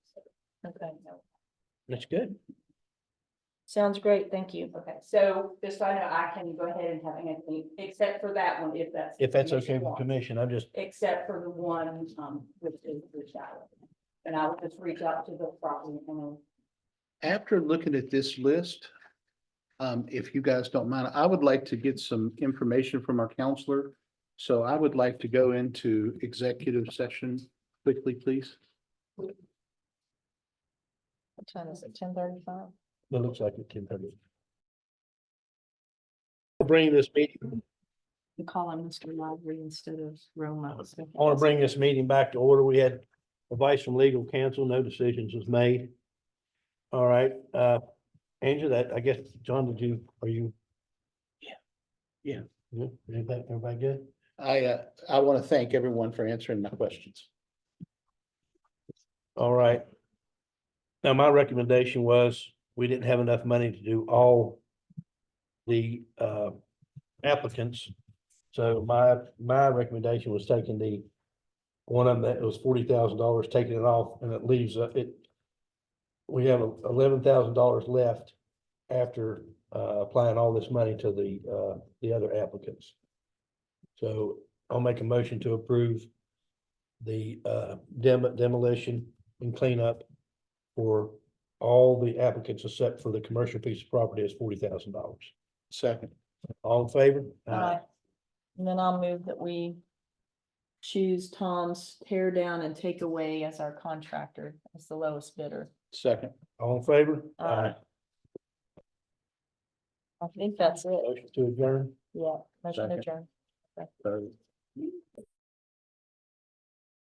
Okay, That's good. sounds great, thank you. Okay, so just so I know, I can go ahead and have Anthony, except for that one, if that's. If that's what you okay with want, the commission, I'm just, Except for the one, um, which is the shower. And I will just reach out to the property owner. After looking at this list, um, if you guys don't mind, I would like to get some information from our counselor. So I would like to go into executive session quickly, please. What time is it, ten thirty-five? it looks like it can. probably- I'll Bring this meeting, You call him Mr. Library instead of Roma. so- I want to bring this meeting back to order. We had advice from legal counsel, no decisions was made. All right, uh, Angela, that, I guess, John, did you, are you? Yeah. Yeah. Yeah, Everybody, everybody good? I, uh, I want to thank everyone for answering my questions. All right. Now, my recommendation was, we didn't have enough money to do all the uh applicants. So my, my recommendation was taking the one of them that was forty thousand dollars, taking it off, and it leaves uh, it. We have eleven thousand dollars left after uh applying all this money to the uh, the other applicants. So I'll make a motion to approve the uh dem- demolition and cleanup for all the applicants except for the commercial piece of property is forty thousand dollars. Second, All in favor? Aye. And then I'll move that we choose Tom's tear down and take away as our contractor, as the lowest bidder. second. All in favor? Aye. I think that's it, Motion to adjourn? yeah, motion Second. adjourned. third.